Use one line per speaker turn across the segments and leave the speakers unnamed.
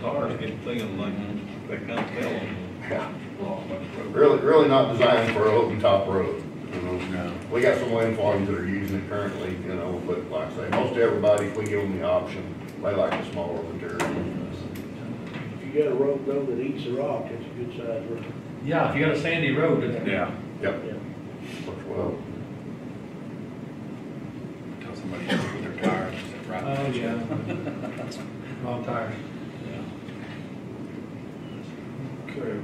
cars get thin, like, they kind of fell on
Yeah.
the road.
Really, really not designed for an open top road, you know?
No.
We got some land farms that are using it currently, you know, but like I say, most everybody, if we give them the option, they like the smaller material.
If you got a road though that eats the rock, it's a good sized road.
Yeah, if you got a sandy road, it's-
Yeah,
Yep,
Yeah.
works well.
tell somebody to put their tires, it's right.
Oh, yeah. Long tires.
Okay.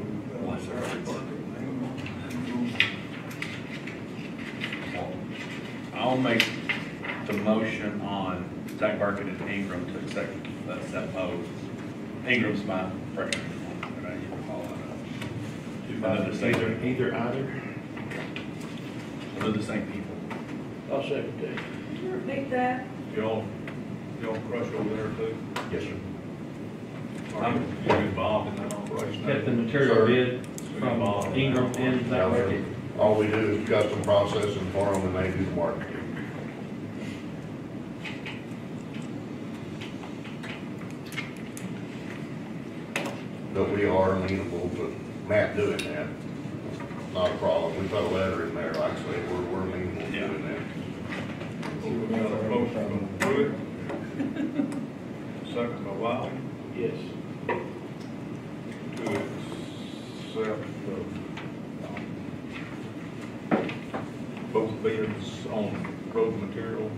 Bless their hearts. I'll make the motion on Zach Barkett and Ingram to accept, uh, accept Mo's. Ingram's my freshman, but I need to call it Another
Either,
state,
either, either.
another the same people.
I'll second that.
Can you repeat that?
Y'all, y'all crush over there too?
Yes, sir.
Are you you involved in that operation?
Get the material bid from Ingram and
Yeah,
that way.
sir. All we do is custom processing for them and they do the work. But we are amenable to Matt doing that. Not a problem. We put a letter in there, like I say, we're, we're amenable to doing that.
We got a motion from Pruitt. Second by Wiley.
Yes.
to accept uh, both bids on road material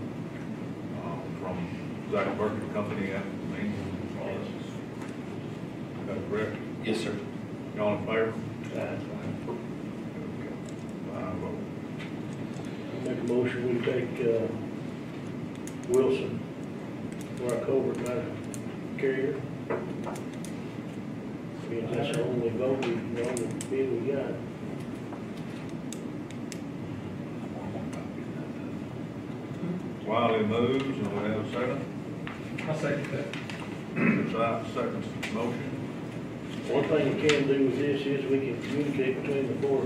uh, from Zach Burger Company and Main Forest. Is that correct?
Yes, sir.
Y'all in favor?
Aye.
Five vote.
I Make a motion, we take, uh, Wilson for our culvert line carrier. I mean, that's the only vote we, the only bid we got.
Wiley moves, and we have a second.
I'll second that.
Zach seconds the motion.
One thing we can do with this is we can communicate between the four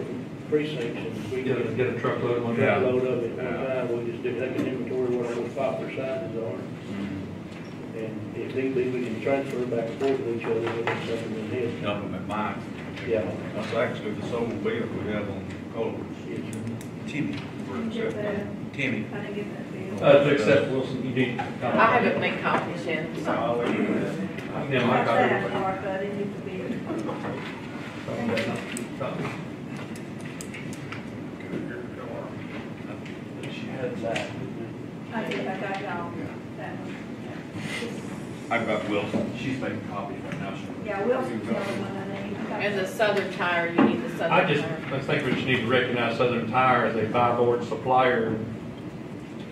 precincts and if we
Get a,
can
get a truckload one.
get a load of it at one time, we just do, like an inventory, what our popular sizes are.
Mm-hmm.
And if need be, we can transfer back and forth with each other, if it's something in this.
Dump them at mine.
Yeah.
That's actually the sole bid we have on culverts.
Yes, sir.
Timmy,
We're
Didn't get that,
accepting.
Timmy.
I didn't get that deal.
Uh, to accept Wilson, you need.
I haven't made copies yet, so.
Yeah, my
Watch that,
copy.
Mark, I didn't get the bid.
Copy.
I think I got y'all, that one.
I've got Wilson, she's making copies right now. She'll-
Yeah, Wilson's the only one I need. I got-
And the southern tire, you need the southern
I just,
tire.
I think we just need to recognize Southern Tire as a buy board supplier.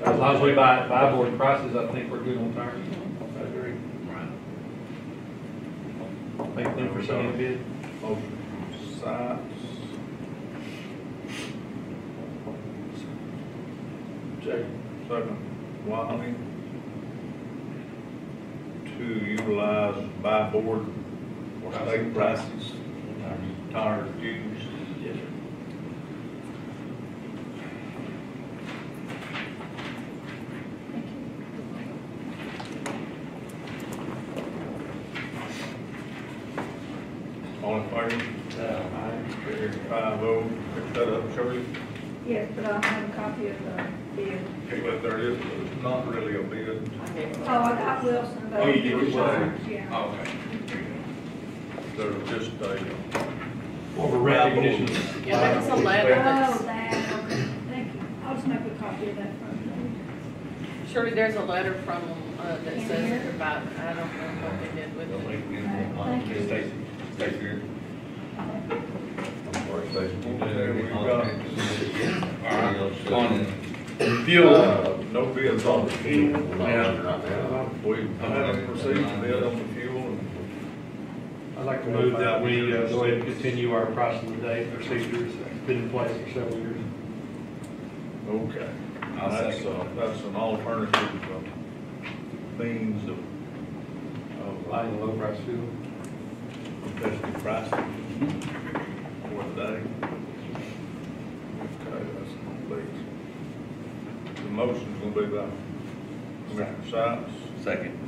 As long as we buy, buy board prices, I think we're good on tires.
I agree.
Right.
Thank them for sending the bid.
Motion from Sykes.
Second.
Second, Wiley. To utilize buy board or state prices, tire used.
Yes, sir.
All in favor? Carried Five oh, pick that up, Shirley.
Yes, but I have a copy of the bid.
Okay, but there is, it's not really a bid.
I gave
Oh,
them.
I got Wilson, but.
Oh, you did, you
said.
Yeah.
Oh, Okay.
There's just a,
Or for recognition.
Yeah, that was a letter
Oh,
that's,
that, okay, thank you. I'll just make a copy of that from
surely there's a letter from, uh, that
In
says
here?
provide, I don't know what they did with
They'll
it.
make me a lot.
Thank you.
Stacy, Stacy here.
you.
I'm sorry, Stacy.
we've got
All right, on fuel,
Uh,
no bids on the
we're
fuel.
not on it right now.
We haven't received a bid on the fuel and
I'd like to move that we uh, go ahead and continue our pricing today procedures that's been in place for several years.
Okay.
I'll
That's,
second.
uh, that's an alternative uh, means of, of uh,
Buying low price fuel.
competitive pricing for the day. Okay, that's complete. The motion's gonna be by Commissioner Sykes,
second.